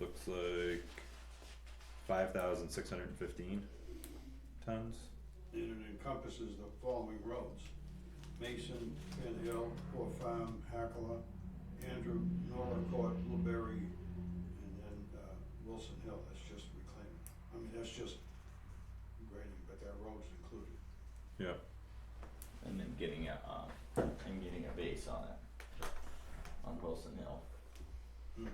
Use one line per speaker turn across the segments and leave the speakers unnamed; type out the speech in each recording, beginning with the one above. looks like five thousand six hundred and fifteen tons.
and it encompasses the following roads. Mason, Van Hill, Poor Farm, Hackler, Andrew, Nolan Court, Blueberry, and then, uh, Wilson Hill, that's just reclaiming. I mean, that's just grading, but that road's included.
and then getting a, uh, and getting a base on it, on Wilson Hill.
The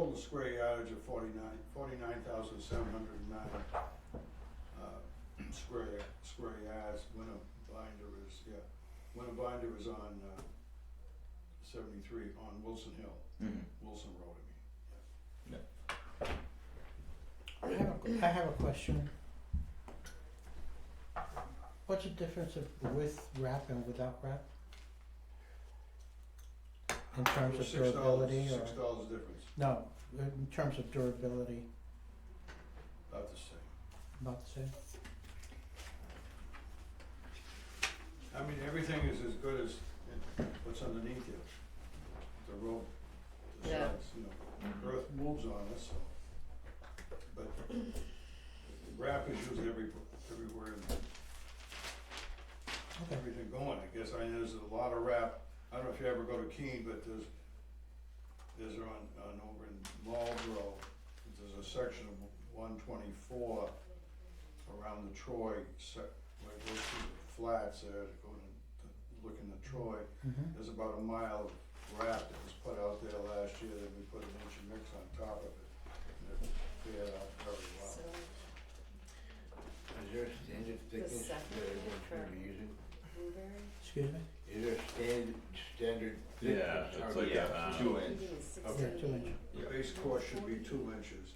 total square yardage of forty-nine, forty-nine thousand seven hundred and nine, uh, square, square yards, when a binder is, yeah, when a binder is on, uh, seventy-three, on Wilson Hill, Wilson Road, I mean.
I have, a- I have a question. What's the difference of with wrap and without wrap? In terms of
Six dollars-
durability or,
Six dollars difference,
no, in terms of durability,
about the same.
about the same?
I mean, everything is as good as it- what's underneath you. The rope, the
Yeah.
sides, you know, earth moves on us, so. But wrap is used every, everywhere, and
Okay,
everything going, I guess, I know there's a lot of wrap. I don't know if you ever go to Keene, but there's, there's on, on over in Marlboro, there's a section of one twenty-four around the Troy, se- where it goes through the flats there, to go to, to look into Troy.
mhm,
There's about a mile of wrap that was put out there last year, then we put an inch of mix on top of it. and It fared out very well.
So,
Is there a standard thickness that
second
everyone's gonna be using?
blueberry,
excuse me?
Is there a standard, standard
Yeah,
thickness?
it's
Are
like
we-
a, um,
Two
I
inch,
think it's
Yeah, two inch.
sixteen,
The base course should be two inches,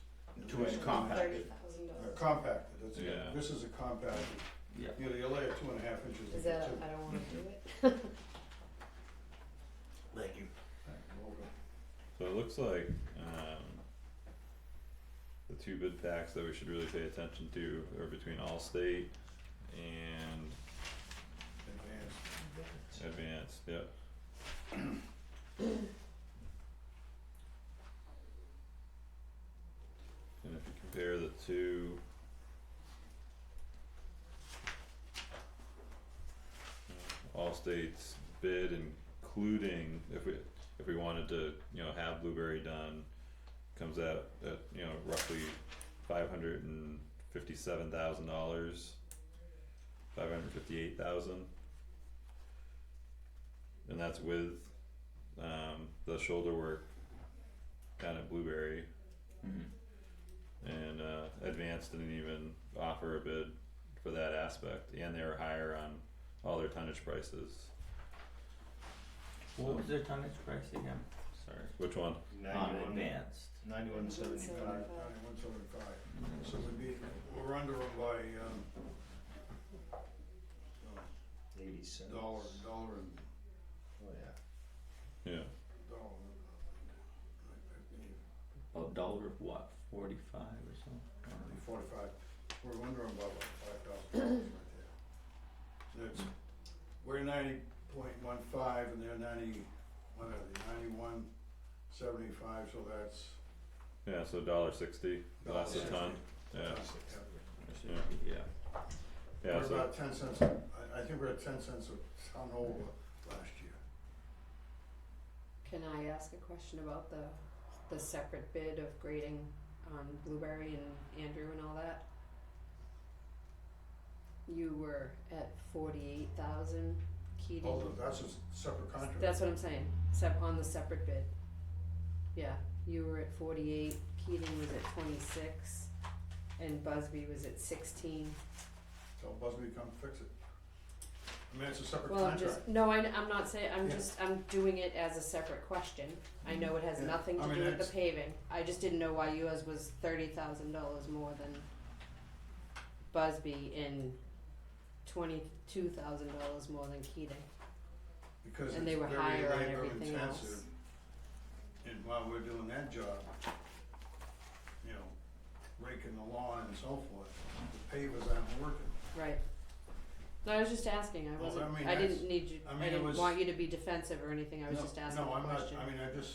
two inch compacted,
thirty thousand
Uh,
dollars.
compacted, that's,
Yeah.
it. this is a compacted.
yeah.
You know, you lay it two and a half inches.
Is
in
that,
two.
I don't wanna do it.
Thank you.
Okay.
So it looks like um the two bid packs that we should really pay attention to are between Allstate and
Advanced.
Advanced, yeah. And if you compare the two. uh, All states bid including, if we, if we wanted to, you know, have Blueberry done, comes out at, you know, roughly five hundred and fifty-seven thousand dollars. Five hundred fifty-eight thousand. And that's with um the shoulder work down at Blueberry
Mhm.
and uh Advanced didn't even offer a bid for that aspect and they were higher on all their tonnage prices.
What was their tonnage price again? Sorry.
Which one?
On advanced.
Ninety-one seventy-five.
Seventy-five.
Ninety-one seventy-five, so we'd be, we're under them by, um, uh,
Eighty cents.
dollar, dollar and,
Oh, yeah.
Yeah,
dollar. uh, and-
A dollar of what, forty-five or something? I don't know.
Forty-five, we're under them by about five thousand dollars right there. That's, we're ninety point one five and they're ninety, what are they, ninety-one seventy-five, so that's.
yeah, so dollar sixty, less a ton, yeah, yeah,
Yeah.
yeah,
We're
so,
about ten cents, a- I, I think we're at ten cents a ton over last year.
Can I ask a question about the, the separate bid of grading on Blueberry and Andrew and all that? You were at forty-eight thousand, Keating,
Although that's a s- separate contract.
that's what I'm saying, sep- on the separate bid. Yeah, you were at forty-eight, Keating was at twenty-six, and Busby was at sixteen.
Tell Busby to come fix it. I mean, it's a separate
Well, I'm
contract.
just, no, I, am not saying, I'm
Yeah.
just, I'm doing it as a separate question. I know it has
Yeah.
nothing
I
to
mean,
do with the
that's-
paving. I just didn't know why yours was thirty thousand dollars more than Busby and twenty-two thousand dollars more than Keating.
Because
And they
it's
were
very
higher on
labor
everything else.
intensive. And while we're doing that job, you know, raking the lawn and so forth, the pavers aren't working.
Right. No, I was just asking. I
Well,
wasn't,
I mean,
I
that's-
didn't need you,
I
I
mean, it
didn't
was-
want you to be defensive or anything. I was
No,
just asking a question.
No, I'm not, I mean, I just,